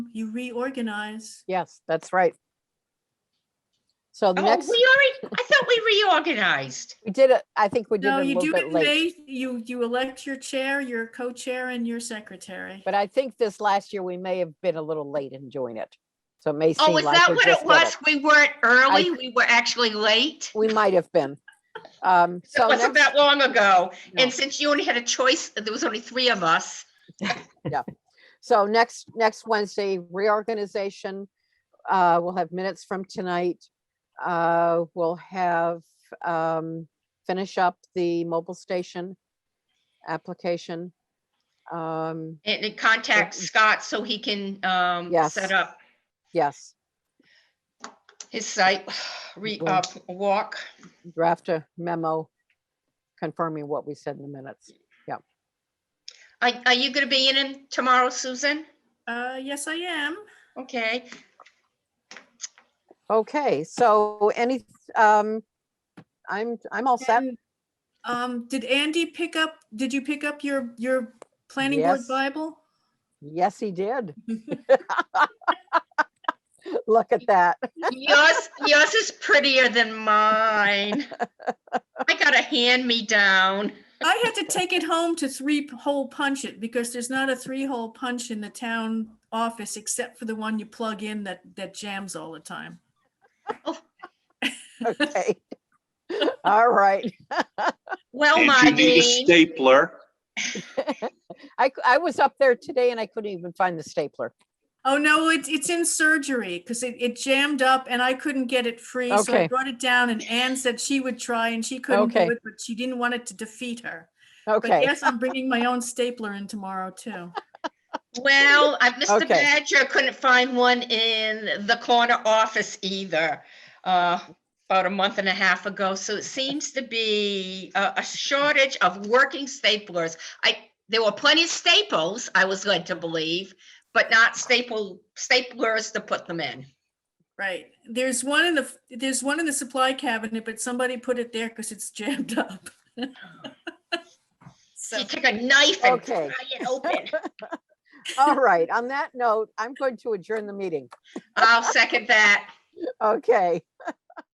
you reorganize. Yes, that's right. So the Oh, we next, already, I thought we reorganized. we did it, I think we did it a No, you little do bit it late. based, you, you elect your chair, your co-chair and your secretary. But I think this last year, we may have been a little late in doing it. So it may seem Oh, is like that we what just did it was? it. We weren't early, we were actually late? We might have been. Um, It so wasn't next, that long ago. No. And since you only had a choice, there was only three of us. so next, next Wednesday reorganization. Uh, we'll have minutes from tonight. Uh, we'll have, um, finish up the mobile station application. Um, And and contact Scott so he can um, Yes. set up yes. his site, re, Well- uh, walk. draft a memo confirming what we said in the minutes. Are, are you going to be in him tomorrow, Susan? Uh, yes, I am. Okay, Okay, so any, um, I'm, I'm all set. And, Um, did Andy pick up, did you pick up your, your planning board Yes. Bible? Yes, he did. Look at that. yours, yours is prettier than mine. I got a hand-me-down. I had to take it home to three-hole punch it because there's not a three-hole punch in the town office except for the one you plug in that, that jams all the time. Okay. All right. Well, And you need Marlene. a stapler. I, c- I was up there today and I couldn't even find the stapler. Oh, no, it's, it's in surgery because it, it jammed up and I couldn't get it free. So I Okay. brought it down and Ann said she would try and she couldn't Okay. do it, but she didn't want it to defeat her. But Okay, yes, I'm bringing my own stapler in tomorrow too. Well, I- Mr. Okay. Badger couldn't find one in the corner office either, uh, about a month and a half ago. So it seems to be a, a shortage of working staplers. I, there were plenty of staples, I was led to believe, but not staple, staplers to put them in. Right. There's one in the, f- there's one in the supply cabinet, but somebody put it there because it's jammed up. So. You take a knife and Okay. pry it open. all right. On that note, I'm going to adjourn the meeting. I'll second that. Okay.